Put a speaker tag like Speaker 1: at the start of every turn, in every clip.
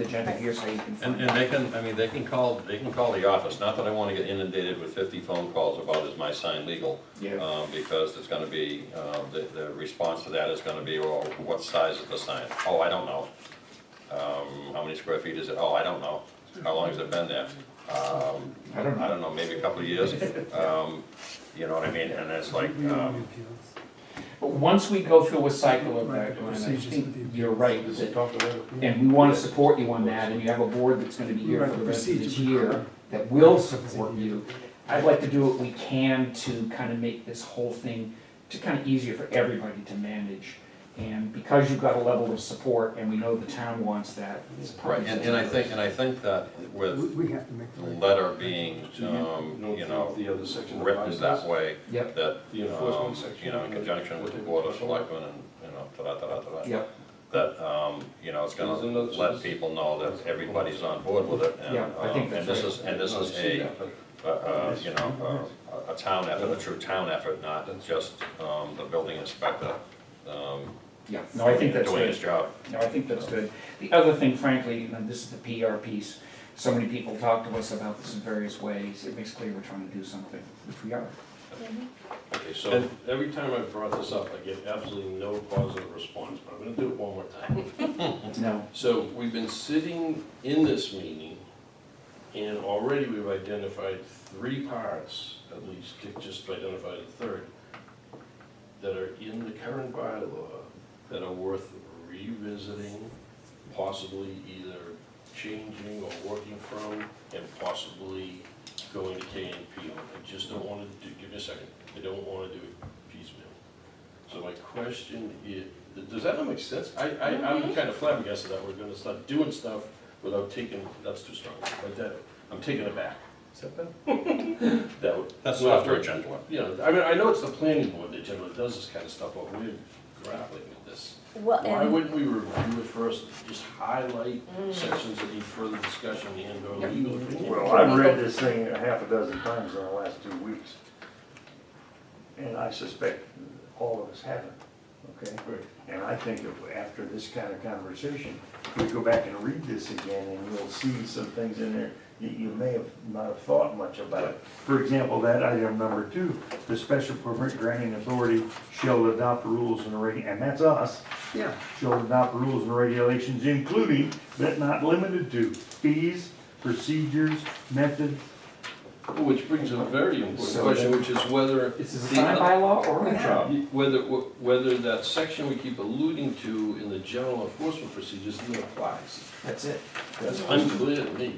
Speaker 1: agenda here so you can
Speaker 2: And,
Speaker 1: find
Speaker 2: and
Speaker 1: out.
Speaker 2: they can, I mean, they can call, they can call the office, not that I wanna get inundated with fifty phone calls about is my sign legal?
Speaker 1: Yeah.
Speaker 2: Um, because it's gonna be, um, the, the response to that is gonna be, well, what size is the sign? Oh, I don't know. Um, how many square feet is it? Oh, I don't know. How long has it been there? Um,
Speaker 1: I don't know.
Speaker 2: I don't know, maybe a couple of years. Um, you know what I mean? And it's like, um,
Speaker 1: But once we go through a cycle of
Speaker 3: Right,
Speaker 1: that,
Speaker 3: the
Speaker 1: and I
Speaker 3: procedures
Speaker 1: think
Speaker 3: with the appeals.
Speaker 1: you're right, is that-
Speaker 4: Talk about it.
Speaker 1: and we wanna support you on that, and you have a board that's gonna be here
Speaker 3: Right,
Speaker 1: for the rest of
Speaker 3: procedures
Speaker 1: this
Speaker 3: with-
Speaker 1: year that will support you. I'd like to do what we can to kind of make this whole thing, to kind of easier for everybody to manage. And because you've got a level of support, and we know the town wants that, it's
Speaker 2: right,
Speaker 1: probably.
Speaker 2: and, and I think, and I think that
Speaker 3: We,
Speaker 2: with
Speaker 3: we have to make
Speaker 2: the
Speaker 3: the right.
Speaker 2: letter being, um,
Speaker 4: No,
Speaker 2: you know,
Speaker 4: The other section. of
Speaker 2: written that
Speaker 4: bylaws.
Speaker 2: way,
Speaker 1: Yep,
Speaker 2: that,
Speaker 4: The
Speaker 2: um,
Speaker 4: enforcement section.
Speaker 2: you know, in conjunction with the board of selectmen and, you know, ta-da, ta-da, ta-da.
Speaker 1: yep,
Speaker 2: That, um, you know, it's gonna
Speaker 4: There's another-
Speaker 2: let people know that everybody's on board with it, and,
Speaker 1: Yeah, I think
Speaker 2: um,
Speaker 1: that's
Speaker 2: and this
Speaker 1: right.
Speaker 2: is, and this is a, a- a, you know, um, a, a town effort, a true town effort, not just, um, the building inspector, um,
Speaker 1: yeah, no, I think that's
Speaker 2: doing his
Speaker 1: good,
Speaker 2: job.
Speaker 1: no, I think that's good. The other thing frankly, and this is the PR piece, so many people talk to us about this in various ways, it makes clear we're trying to do something, which we are.
Speaker 4: Okay, so
Speaker 2: And-
Speaker 4: every time I've brought this up, I get absolutely no positive response, but I'm gonna do it one more time.
Speaker 1: No,
Speaker 4: So we've been sitting in this meeting, and already we've identified three parts, at least, Dick just identified a third, that are in the current bylaw that are worth revisiting, possibly either changing or working from, and possibly going to K and P on. I just don't wanna do, give me a second, I don't wanna do it piecemeal. So my question is, does that not make sense? I, I, I'm kind of flabbergasted that we're gonna start doing stuff without taking, that's too strong, but that, I'm taking it back. Is that bad? That would.
Speaker 2: That's
Speaker 4: well,
Speaker 2: not very gentle.
Speaker 4: You know, I mean, I know it's the planning board that generally does this kind of stuff, but we're grappling with this.
Speaker 5: Well,
Speaker 4: Why
Speaker 5: and,
Speaker 4: wouldn't we review it first, just highlight sections that need further discussion and or legal opinion?
Speaker 6: Well, I've read this thing a half a dozen times in the last two weeks. And I suspect all of us haven't, okay?
Speaker 4: Right.
Speaker 6: And I think if after this kind of conversation, we go back and read this again and you'll see some things in there that you may have not have thought much about. For example, that item number two, the special permit granting authority shall adopt rules and reg, and that's us
Speaker 3: Yeah,
Speaker 6: shall adopt rules and regulations including, but not limited to, fees, procedures, methods.
Speaker 4: Which brings a very important
Speaker 1: So
Speaker 4: question,
Speaker 1: then-
Speaker 4: which is whether.
Speaker 1: It's a
Speaker 4: the
Speaker 1: sign
Speaker 4: other-
Speaker 1: by law or a job.
Speaker 4: Whether, whether that section we keep alluding to in the general enforcement procedures even applies.
Speaker 1: That's it.
Speaker 4: That's unclear to me.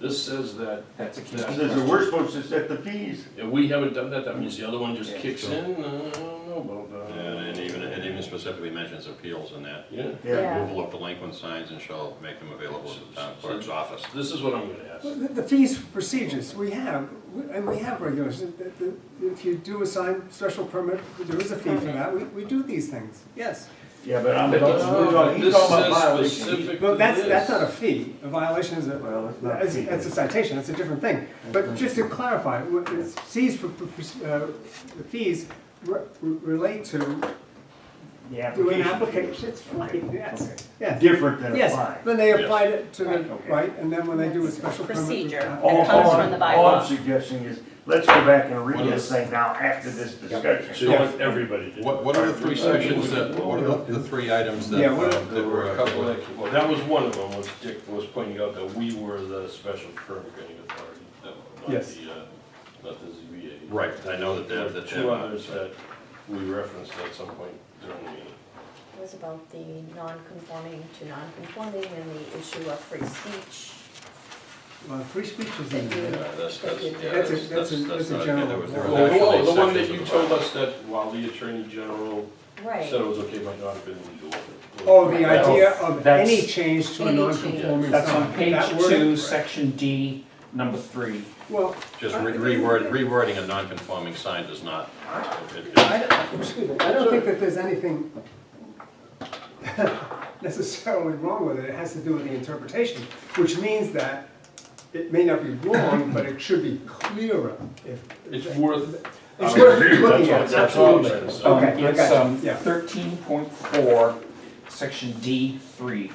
Speaker 4: This says that,
Speaker 1: That's a key.
Speaker 4: Yeah.
Speaker 6: Says that we're supposed to set the fees.
Speaker 4: and we haven't done that, that means the other one just
Speaker 6: Yeah,
Speaker 4: kicks
Speaker 6: sure.
Speaker 4: in, I don't know about
Speaker 2: And,
Speaker 4: that.
Speaker 2: and even, it even specifically mentions appeals in that.
Speaker 4: Yeah,
Speaker 5: yeah,
Speaker 2: Removal of delinquent signs and shall make them available to the town clerk's office.
Speaker 4: this is what I'm gonna ask.
Speaker 3: Well, the the fees for procedures, we have, we- and we have regulations, that- that if you do assign special permit, there is a fee for that, we, we do these things, yes.
Speaker 6: Yeah, but I'm,
Speaker 4: But uh,
Speaker 6: he's talking
Speaker 4: This
Speaker 6: about
Speaker 4: says
Speaker 6: violations.
Speaker 4: specific to
Speaker 3: Well, that's, that's
Speaker 4: this.
Speaker 3: not a fee, a violation is a,
Speaker 6: Well, it's not a
Speaker 3: that's,
Speaker 6: fee.
Speaker 3: that's a citation, that's a different thing. But just to clarify, what it's fees for, for- uh, the fees re- relate to
Speaker 6: The
Speaker 3: doing
Speaker 6: application
Speaker 3: applications,
Speaker 6: fees.
Speaker 3: it's right, yes, yes.
Speaker 6: Different than
Speaker 3: Yes,
Speaker 6: applying.
Speaker 3: then they
Speaker 2: Yes.
Speaker 3: applied it to the,
Speaker 5: Right,
Speaker 6: okay.
Speaker 3: right, and then when they do a special permit.
Speaker 5: Procedure.
Speaker 3: uh,
Speaker 6: All-
Speaker 5: comes
Speaker 6: all
Speaker 5: from
Speaker 6: I'm-
Speaker 5: the
Speaker 6: All I'm
Speaker 5: bylaw.
Speaker 6: suggesting is, let's go back and read
Speaker 4: What
Speaker 6: this
Speaker 4: is-
Speaker 6: thing now after this
Speaker 4: So
Speaker 6: discussion.
Speaker 4: you want everybody to.
Speaker 2: What, what are the three sections that, what are the- the three items that,
Speaker 3: Yeah, what
Speaker 2: um, that
Speaker 4: There were a couple
Speaker 2: were?
Speaker 4: that, well, that was one of them, was Dick was pointing out that we were the special permit granting authority, that not
Speaker 3: Yes.
Speaker 4: the, uh, not the ZBA.
Speaker 2: Right, I know that
Speaker 4: There
Speaker 2: they're,
Speaker 4: were
Speaker 2: that
Speaker 4: two others
Speaker 2: they're.
Speaker 4: that we referenced at some point during the meeting.
Speaker 5: it was about the non-conforming to non-conforming and the issue of free speech.
Speaker 3: Well, free speech is in
Speaker 5: Thank you.
Speaker 3: there.
Speaker 2: Yeah, Uh, that's, that's, yeah,
Speaker 3: That's a-
Speaker 2: that's,
Speaker 3: that's a-
Speaker 2: that's,
Speaker 3: that's
Speaker 2: that's
Speaker 3: a
Speaker 2: not,
Speaker 3: general-
Speaker 2: there was, there was
Speaker 4: Oh,
Speaker 2: actually
Speaker 4: oh, the one that
Speaker 2: sections
Speaker 4: you
Speaker 2: of the
Speaker 4: told
Speaker 2: bylaw.
Speaker 4: us that while the attorney general
Speaker 5: Right,
Speaker 4: said it was okay, might not have been legal.
Speaker 3: Oh, the idea of
Speaker 1: That's-
Speaker 3: any change to a
Speaker 5: Any change.
Speaker 3: non-conforming sign.
Speaker 1: That's on page
Speaker 3: That word-
Speaker 1: two, section D, number three.
Speaker 3: Well,
Speaker 2: Just re- reword, rewording a non-conforming sign does not, it- it-
Speaker 3: I don't, excuse me, I don't think that there's anything necessarily wrong with it, it has to do with the interpretation, which means that it may not be wrong, but it should be clearer if.
Speaker 4: It's worth.
Speaker 3: It's
Speaker 4: I would
Speaker 3: worth
Speaker 4: agree, that's
Speaker 3: looking
Speaker 4: all-
Speaker 3: at,
Speaker 4: that's all I'm
Speaker 3: absolutely.
Speaker 1: um,
Speaker 4: saying, so-
Speaker 3: Okay, I
Speaker 1: It's
Speaker 3: got you,
Speaker 1: um,
Speaker 3: yeah.
Speaker 1: thirteen point four, section D three.